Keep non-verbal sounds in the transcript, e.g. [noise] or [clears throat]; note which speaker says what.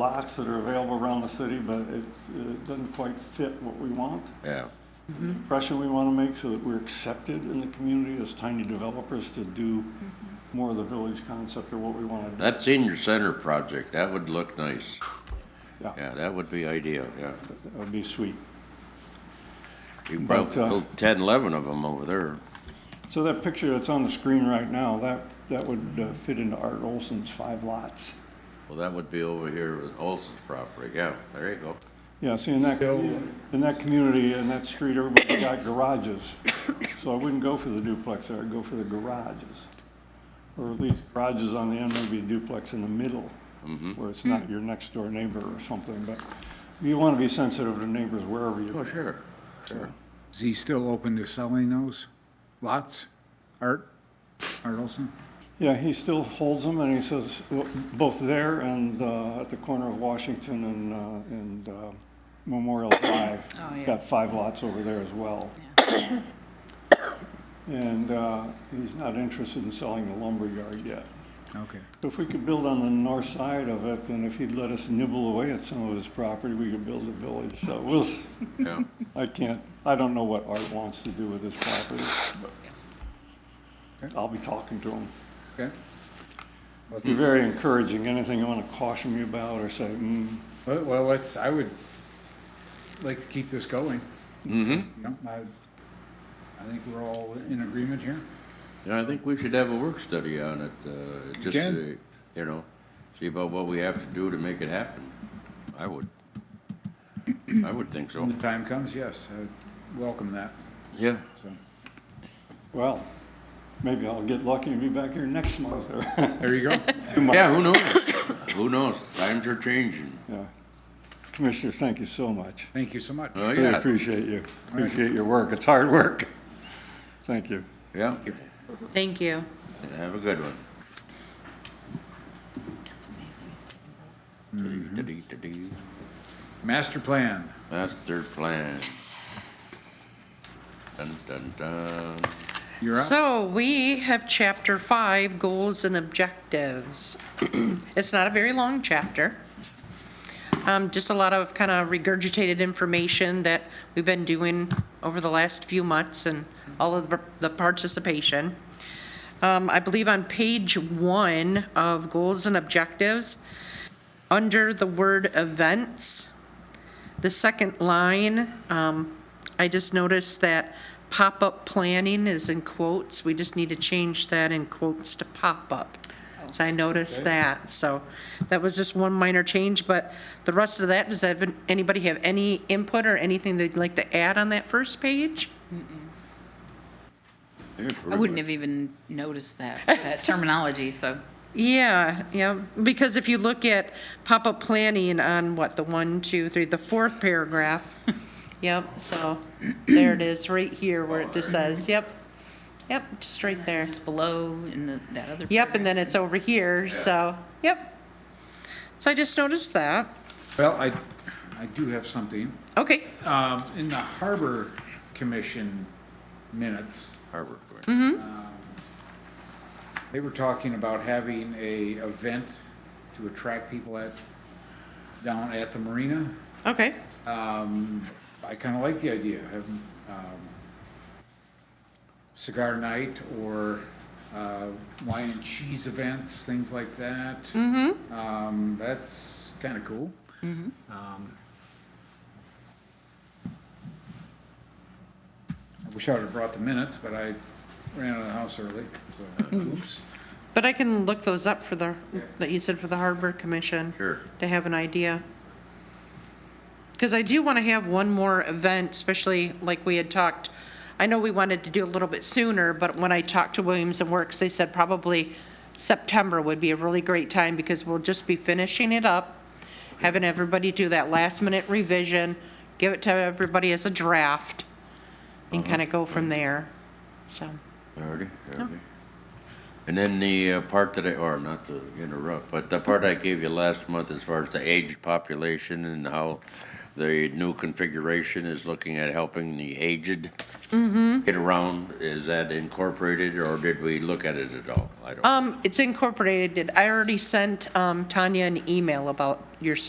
Speaker 1: lots that are available around the city, but it, it doesn't quite fit what we want.
Speaker 2: Yeah,
Speaker 1: Pressure we want to make so that we're accepted in the community as tiny developers to do more of the village concept or what we want to
Speaker 2: that senior center project, that would look nice.
Speaker 1: Yeah.
Speaker 2: Yeah, that would be ideal, yeah.
Speaker 1: do. That would be sweet.
Speaker 2: You can
Speaker 1: But,
Speaker 2: probably
Speaker 1: uh,
Speaker 2: build ten, eleven of them over there.
Speaker 1: So that picture that's on the screen right now, that, that would uh, fit into Art Olson's five lots.
Speaker 2: Well, that would be over here with Olson's property, yeah, there you go.
Speaker 1: Yeah, see, in that, in that community, in that street, everybody's got garages. So I wouldn't go for the duplex there, I'd go for the garages. Or at least garages on the end, maybe a duplex in the middle, where it's not your next door neighbor or something, but you want to be sensitive to neighbors wherever you
Speaker 2: Oh,
Speaker 1: go.
Speaker 2: sure, sure.
Speaker 3: Is he still open to selling those lots? Art, Art Olson?
Speaker 1: Yeah, he still holds them, and he says, well, both there and uh, at the corner of Washington and, uh, and uh, Memorial Drive.
Speaker 4: Oh, yeah.
Speaker 1: Got five lots over there as well. And uh, he's not interested in selling the lumberyard yet.
Speaker 3: Okay.
Speaker 1: If we could build on the north side of it, and if he'd let us nibble away at some of his property, we could build a village. So we'll, s-
Speaker 2: Yeah,
Speaker 1: I can't, I don't know what Art wants to do with his property, but
Speaker 3: Okay.
Speaker 1: I'll be talking to him.
Speaker 3: Okay.
Speaker 1: Be very encouraging. Anything you want to caution me about or say, mm,
Speaker 3: Well, well, let's, I would like to keep this going. Mm-hmm. I, I think we're all in agreement here.
Speaker 2: Yeah, I think we should have a work study on it, uh, just
Speaker 3: can.
Speaker 2: to, you know, see about what we have to do to make it happen. I would, I would think so,
Speaker 3: When the time comes, yes, I welcome that,
Speaker 2: yeah.
Speaker 3: so.
Speaker 1: well, maybe I'll get lucky and be back here next month or [laughs]
Speaker 3: There you go.
Speaker 1: two months.
Speaker 2: Yeah, who knows? [coughs] Who knows? Times are changing.
Speaker 1: Yeah. Commissioners, thank you so much.
Speaker 3: [laughs] Thank you so much.
Speaker 2: Oh,
Speaker 1: Really
Speaker 2: yeah,
Speaker 1: appreciate you. Appreciate your work. It's hard work. Thank you.
Speaker 2: yeah.
Speaker 4: Thank you.
Speaker 2: Have a good one.
Speaker 4: That's amazing.
Speaker 2: Do-do-do-do.
Speaker 3: Master plan.
Speaker 2: Master plan. Dun, dun, dun.
Speaker 3: You're up.
Speaker 4: So we have chapter five, goals and objectives. [clears throat] It's not a very long chapter. Um, just a lot of kind of regurgitated information that we've been doing over the last few months and all of the- the participation. Um, I believe on page one of goals and objectives, under the word events, The second line, um, I just noticed that pop-up planning is in quotes. We just need to change that in quotes to pop-up. So I noticed that, so that was just one minor change, but the rest of that, does that- anybody have any input or anything they'd like to add on that first page?
Speaker 5: I wouldn't have even noticed that, that terminology, so.
Speaker 4: Yeah, yeah, because if you look at pop-up planning on what, the one, two, three, the fourth paragraph. [laughs] Yep, so there it is, right here where it just says, yep, yep, just right there.
Speaker 5: It's below in the, that other.
Speaker 4: Yep, and
Speaker 5: paragraph.
Speaker 4: then it's over here, so, yep. So I just noticed that.
Speaker 3: Well, I, I do have something.
Speaker 4: Okay,
Speaker 3: Um, in the Harbor Commission minutes,
Speaker 2: Harbor.
Speaker 5: Mm-hmm.
Speaker 3: They were talking about having a event to attract people at, down at the marina.
Speaker 4: okay,
Speaker 3: Um, I kinda like the idea, of having, um, cigar night or, uh, wine and cheese events, things like that. Mm-hmm. Um, that's kinda cool. Um, I wish I would've brought the minutes, but I ran out of the house early, so, oops.
Speaker 4: but I can look those up for the, that you said for the Harbor Commission.
Speaker 2: Sure.
Speaker 4: to have an idea. Because I do want to have one more event, especially like we had talked, I know we wanted to do a little bit sooner, but when I talked to Williams and Works, they said probably September would be a really great time because we'll just be finishing it up, having everybody do that last minute revision, give it to everybody as a draft, and kind of go from there, so.
Speaker 2: Already,
Speaker 5: Oh.
Speaker 2: already. And then the uh, part that I, or not to interrupt, but the part I gave you last month as far as the aged population and how the new configuration is looking at helping the aged
Speaker 5: Mm-hmm.
Speaker 2: get around, is that incorporated or did we look at it at all? I don't.
Speaker 4: Um, it's incorporated, I already sent, um, Tanya an email about your